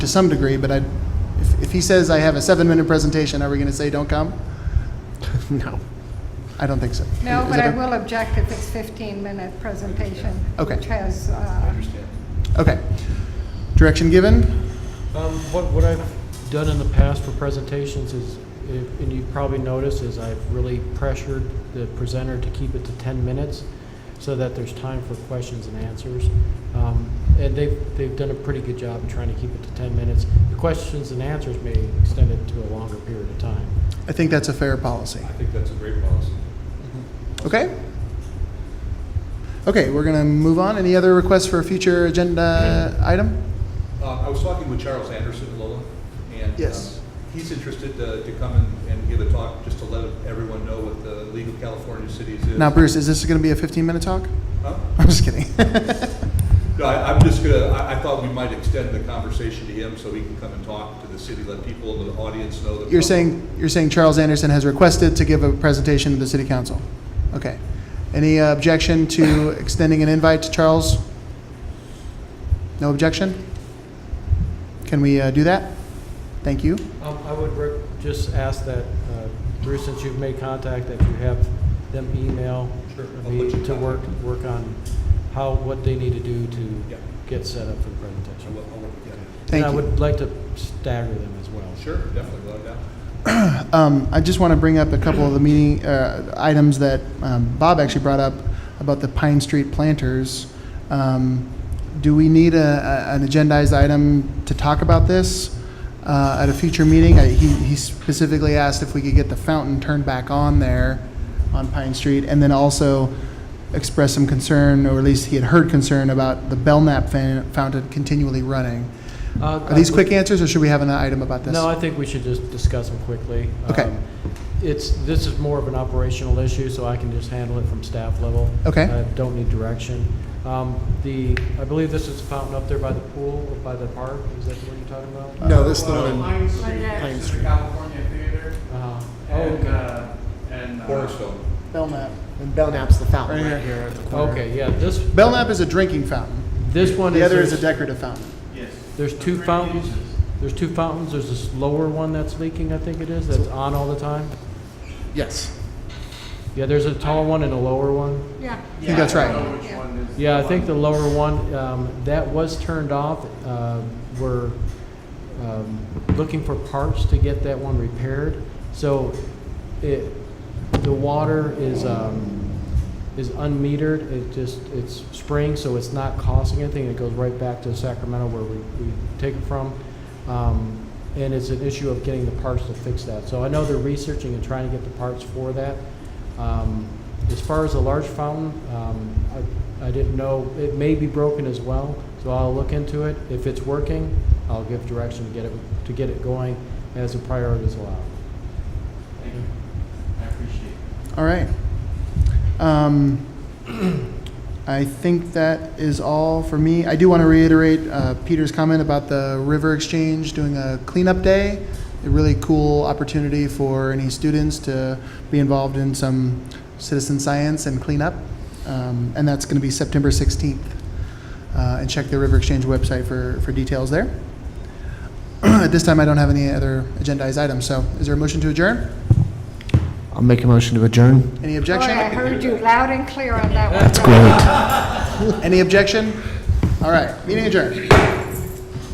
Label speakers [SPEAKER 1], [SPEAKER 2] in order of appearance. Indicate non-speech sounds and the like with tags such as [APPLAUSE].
[SPEAKER 1] to some degree, but I, if, if he says I have a seven-minute presentation, are we going to say don't come? No, I don't think so.
[SPEAKER 2] No,
[SPEAKER 1] Is
[SPEAKER 2] but
[SPEAKER 1] that
[SPEAKER 2] I
[SPEAKER 1] okay?
[SPEAKER 2] will object if it's 15-minute presentation,
[SPEAKER 1] Okay.
[SPEAKER 2] which has, uh,
[SPEAKER 3] Understand.
[SPEAKER 1] Okay. Direction given?
[SPEAKER 4] Um, What, what I've done in the past for presentations is, if- and you've probably noticed, is I've really pressured the presenter to keep it to 10 minutes so that there's time for questions and answers. Um, And they've, they've done a pretty good job in trying to keep it to 10 minutes. The questions and answers may extend it to a longer period of time.
[SPEAKER 1] I think that's a fair policy.
[SPEAKER 3] I think that's a great policy.
[SPEAKER 1] Okay? Okay, we're going to move on. Any other requests for a future agenda item?
[SPEAKER 3] Uh, I was talking with Charles Anderson at Lola, and.
[SPEAKER 1] Yes.
[SPEAKER 3] um, He's interested uh, to come and- and give a talk, just to let everyone know what the League of California Cities is.
[SPEAKER 1] Now, Bruce, is this going to be a 15-minute talk? [LAUGHS]
[SPEAKER 3] Huh?
[SPEAKER 1] I'm just kidding. [LAUGHS]
[SPEAKER 3] No, I- I'm just gonna, I, I thought we might extend the conversation to him so he can come and talk to the city, let people in the audience know that.
[SPEAKER 1] You're saying, you're saying Charles Anderson has requested to give a presentation to the city council? Okay. Any uh, objection to extending an invite to Charles? No objection? Can we uh, do that? Thank you.
[SPEAKER 4] Um, I would rec- just ask that, uh, Bruce, since you've made contact, that you have them email
[SPEAKER 3] Sure, I'll
[SPEAKER 4] me
[SPEAKER 3] put you in
[SPEAKER 4] to work,
[SPEAKER 3] contact.
[SPEAKER 4] work on how, what they need to do
[SPEAKER 3] Yeah.
[SPEAKER 4] to get set up for the
[SPEAKER 3] I
[SPEAKER 4] presentation.
[SPEAKER 3] will- I will- yeah.
[SPEAKER 1] Thank
[SPEAKER 4] And I
[SPEAKER 1] you.
[SPEAKER 4] would like to stagger them as well.
[SPEAKER 3] Sure, definitely, let him know.
[SPEAKER 1] Um, I just want to bring up a couple of the meeting, uh, items that, um, Bob actually brought up about the Pine Street planters. Um, do we need a, a, an agendized item to talk about this, uh, at a future meeting? I, he, he specifically asked if we could get the fountain turned back on there on Pine Street, and then also expressed some concern, or at least he had heard concern about the Belknap fan, fountain continually running.
[SPEAKER 4] Uh,
[SPEAKER 1] Are these
[SPEAKER 4] I-
[SPEAKER 1] quick answers, or should we have an item about this?
[SPEAKER 4] No, I think we should just discuss them quickly.
[SPEAKER 1] Okay.
[SPEAKER 4] Um, It's, this is more of an operational issue, so I can just handle it from staff level.
[SPEAKER 1] Okay.
[SPEAKER 4] I don't need direction. Um, The, I believe this is the fountain up there by the pool, or by the park, is that what you're talking about?
[SPEAKER 5] No, that's
[SPEAKER 3] Uh,
[SPEAKER 5] the one.
[SPEAKER 6] Pine Street,
[SPEAKER 5] Pine
[SPEAKER 6] next to
[SPEAKER 5] Street.
[SPEAKER 6] the California Theater,
[SPEAKER 4] Uh,
[SPEAKER 6] and, uh, and. uh,
[SPEAKER 3] Cornerstone.
[SPEAKER 1] Belknap.
[SPEAKER 5] And Belknap's the fountain
[SPEAKER 1] Right
[SPEAKER 5] right,
[SPEAKER 1] here.
[SPEAKER 5] here at the corner.
[SPEAKER 4] Okay, yeah, this.
[SPEAKER 1] Belknap is a drinking fountain.
[SPEAKER 4] This one is.
[SPEAKER 1] The other is a
[SPEAKER 4] there's-
[SPEAKER 1] decorative fountain.
[SPEAKER 6] Yes.
[SPEAKER 4] There's
[SPEAKER 6] The
[SPEAKER 4] two
[SPEAKER 6] three
[SPEAKER 4] fountains.
[SPEAKER 6] uses.
[SPEAKER 4] There's two fountains, there's this lower one that's leaking, I think it is, that's on all the time.
[SPEAKER 5] Yes.
[SPEAKER 4] Yeah, there's a tall one and a lower one.
[SPEAKER 2] yeah.
[SPEAKER 1] think that's
[SPEAKER 6] Yeah, I
[SPEAKER 1] right.
[SPEAKER 6] don't know which one is
[SPEAKER 4] Yeah, I think
[SPEAKER 6] one.
[SPEAKER 4] the lower one, um, that was turned off. Uh, We're um, looking for parts to get that one repaired. So it, the water is, um, is unmetered, it just, it's spring, so it's not costing anything. It goes right back to Sacramento where we, we take it from. Um, And it's an issue of getting the parts to fix that. So I know they're researching and trying to get the parts for that. Um, As far as the large fountain, um, I, I didn't know, it may be broken as well, so I'll look into it. If it's working, I'll give direction to get it, to get it going as the priorities allow.
[SPEAKER 6] Thank you. I appreciate it.
[SPEAKER 1] All right. Um, I think that is all for me. I do want to reiterate uh, Peter's comment about the River Exchange doing a cleanup day. A really cool opportunity for any students to be involved in some citizen science and cleanup. Um, and that's going to be September 16th. Uh, and check the River Exchange website for, for details there. [CLEARS THROAT] At this time, I don't have any other agendized items. So, is there a motion to adjourn?
[SPEAKER 5] I'll make a motion to adjourn.
[SPEAKER 1] Any
[SPEAKER 2] Boy,
[SPEAKER 1] objection?
[SPEAKER 2] I heard you loud and clear on that one.
[SPEAKER 5] Great.
[SPEAKER 1] Any objection? All right, meeting adjourned.